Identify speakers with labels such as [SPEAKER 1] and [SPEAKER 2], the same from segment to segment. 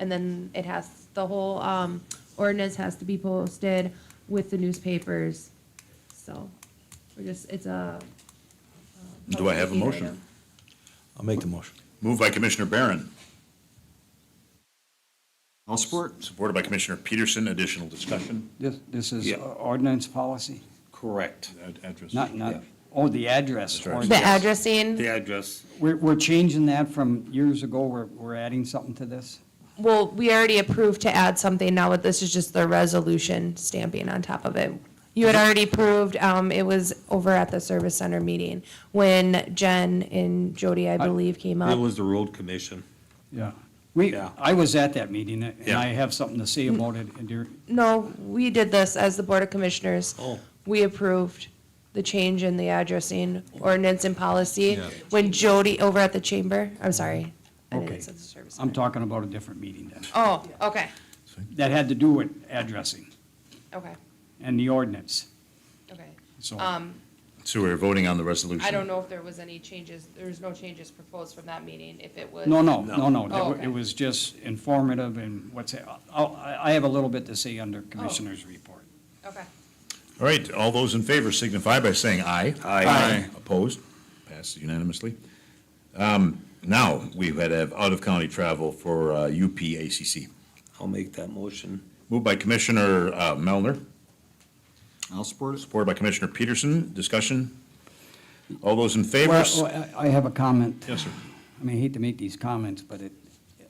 [SPEAKER 1] And then it has, the whole um, ordinance has to be posted with the newspapers. So we're just, it's a. a
[SPEAKER 2] Do I have a
[SPEAKER 1] public
[SPEAKER 2] motion?
[SPEAKER 1] item.
[SPEAKER 3] I'll make the motion.
[SPEAKER 2] Moved by Commissioner Barron,
[SPEAKER 4] I'll support.
[SPEAKER 2] supported by Commissioner Peterson. Additional discussion?
[SPEAKER 5] This, this is
[SPEAKER 4] Yeah.
[SPEAKER 5] ordinance policy,
[SPEAKER 4] Correct.
[SPEAKER 2] Ad- Address.
[SPEAKER 5] not, not,
[SPEAKER 4] Yeah.
[SPEAKER 5] oh, the address.
[SPEAKER 2] That's right.
[SPEAKER 1] The
[SPEAKER 5] ordinance.
[SPEAKER 1] addressing,
[SPEAKER 4] The address.
[SPEAKER 5] We're, we're changing that from years ago, we're, we're adding something to this.
[SPEAKER 1] well, we already approved to add something now, but this is just the resolution stamping on top of it. You had already approved, um, it was over at the service center meeting when Jen and Jody, I believe, came up.
[SPEAKER 6] It was the road commission.
[SPEAKER 5] Yeah. We,
[SPEAKER 6] Yeah.
[SPEAKER 5] I was at that meeting, and
[SPEAKER 6] Yeah.
[SPEAKER 5] I have something to
[SPEAKER 1] Mm.
[SPEAKER 5] say about it, and there-
[SPEAKER 1] No, we did this as the Board of Commissioners.
[SPEAKER 6] Oh.
[SPEAKER 1] We approved the change in the addressing ordinance and policy
[SPEAKER 6] Yeah.
[SPEAKER 1] when Jody, over at the chamber, I'm sorry. I didn't
[SPEAKER 5] Okay.
[SPEAKER 1] say the service
[SPEAKER 5] I'm
[SPEAKER 1] center.
[SPEAKER 5] talking about a different meeting then.
[SPEAKER 1] Oh, okay,
[SPEAKER 5] That had to do with addressing
[SPEAKER 1] okay,
[SPEAKER 5] and the ordinance,
[SPEAKER 1] okay.
[SPEAKER 5] so.
[SPEAKER 1] Um,
[SPEAKER 2] So we're voting on the resolution.
[SPEAKER 1] I don't know if there was any changes, there was no changes proposed from that meeting, if it was.
[SPEAKER 5] No, no, no, no.
[SPEAKER 1] Oh,
[SPEAKER 5] That wa-
[SPEAKER 1] okay.
[SPEAKER 5] It was just informative and what's, I'll- I, I have a little bit to say under Commissioner's report.
[SPEAKER 1] Okay.
[SPEAKER 2] All right, all those in favor signify by saying aye.
[SPEAKER 4] Aye. Aye.
[SPEAKER 2] Opposed? Passed unanimously. Um, Now, we had have out-of-county travel for uh, UPACC.
[SPEAKER 6] I'll make that motion.
[SPEAKER 2] Moved by Commissioner uh, Melner,
[SPEAKER 4] I'll support it.
[SPEAKER 2] supported by Commissioner Peterson. Discussion? All those in favor?
[SPEAKER 5] Well,
[SPEAKER 2] s-
[SPEAKER 5] well, I I have a comment.
[SPEAKER 2] Yes, sir.
[SPEAKER 5] I mean, I hate to make these comments, but it,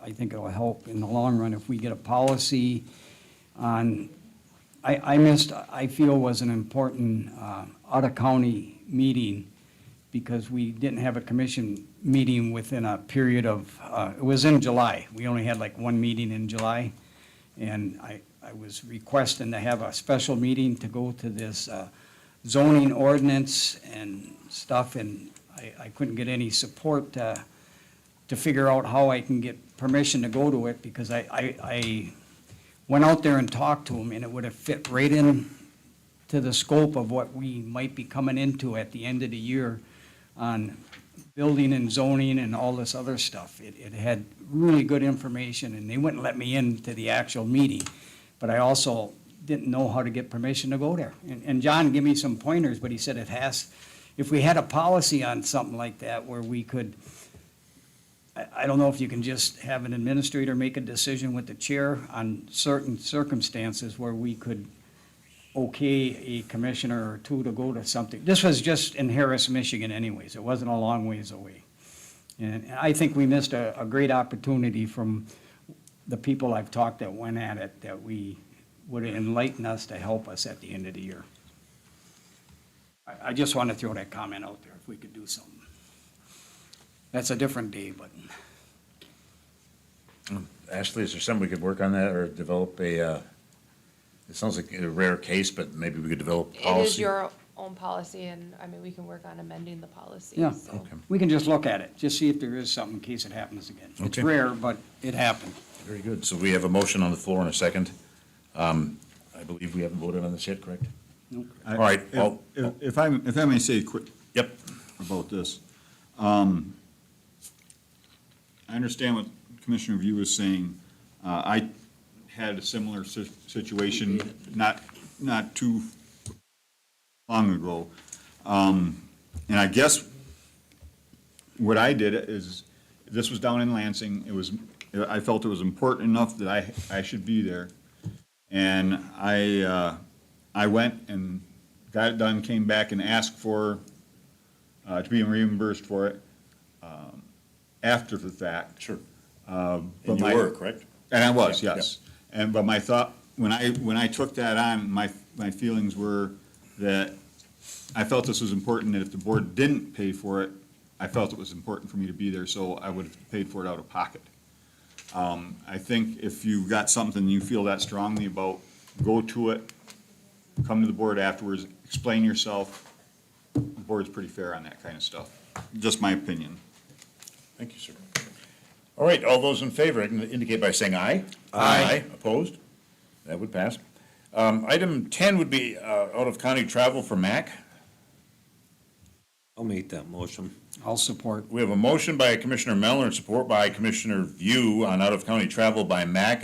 [SPEAKER 5] I think it'll help in the long run if we get a policy on, I, I missed, I feel was an important uh, out-of-county meeting because we didn't have a commission meeting within a period of, uh, it was in July. We only had like one meeting in July. And I, I was requesting to have a special meeting to go to this uh, zoning ordinance and stuff, and I, I couldn't get any support uh, to figure out how I can get permission to go to it, because I, I, I went out there and talked to him, and it would have fit right in to the scope of what we might be coming into at the end of the year on building and zoning and all this other stuff. It, it had really good information, and they wouldn't let me into the actual meeting. But I also didn't know how to get permission to go there. And, and John gave me some pointers, but he said it has, if we had a policy on something like that where we could, I, I don't know if you can just have an administrator make a decision with the chair on certain circumstances where we could okay a commissioner or two to go to something. This was just in Harris, Michigan anyways. It wasn't a long ways away. And I think we missed a, a great opportunity from the people I've talked that went at it, that we would enlighten us to help us at the end of the year. I, I just want to throw that comment out there, if we could do something. That's a different day, but
[SPEAKER 2] Ashley, is there something we could work on that or develop a, uh, it sounds like a rare case, but maybe we could develop
[SPEAKER 1] It
[SPEAKER 2] policy?
[SPEAKER 1] is your own policy, and, I mean, we can work on amending the policy,
[SPEAKER 5] Yeah.
[SPEAKER 1] so.
[SPEAKER 2] Okay.
[SPEAKER 5] we can just look at it, just see if there is something in case it happens again. It's
[SPEAKER 2] Okay.
[SPEAKER 5] rare, but it happened.
[SPEAKER 2] Very good. So we have a motion on the floor and a second. Um, I believe we haven't voted on this yet, correct? All right,
[SPEAKER 7] If-
[SPEAKER 2] well-
[SPEAKER 7] If if I, if I may say quick
[SPEAKER 2] Yep.
[SPEAKER 7] about this, um, I understand what Commissioner View was saying. Uh, I had a similar si- situation, not, not too long ago. Um, and I guess what I did is, this was down in Lansing, it was, I felt it was important enough that I, I should be there. And I, uh, I went and got it done, came back and asked for, uh, to be reimbursed for it, um, after the fact.
[SPEAKER 2] Sure.
[SPEAKER 7] But
[SPEAKER 2] And you
[SPEAKER 7] my-
[SPEAKER 2] were, correct?
[SPEAKER 7] And I was,
[SPEAKER 2] Yeah,
[SPEAKER 7] yes. And, but my thought, when I, when I took that on, my, my feelings were that I felt this was important, that if the board didn't pay for it, I felt it was important for me to be there, so I would have paid for it out of pocket. Um, I think if you've got something you feel that strongly about, go to it, come to the board afterwards, explain yourself. The board's pretty fair on that kind of stuff, just my opinion.
[SPEAKER 2] Thank you, sir. All right, all those in favor indicate by saying aye. Aye. Opposed? That would pass. uh, Um, Item 10 would be out-of-county travel for MAC.
[SPEAKER 6] I'll make that motion.
[SPEAKER 5] I'll support.
[SPEAKER 2] We have a motion by Commissioner Mellor and support by Commissioner View on out-of-county travel by MAC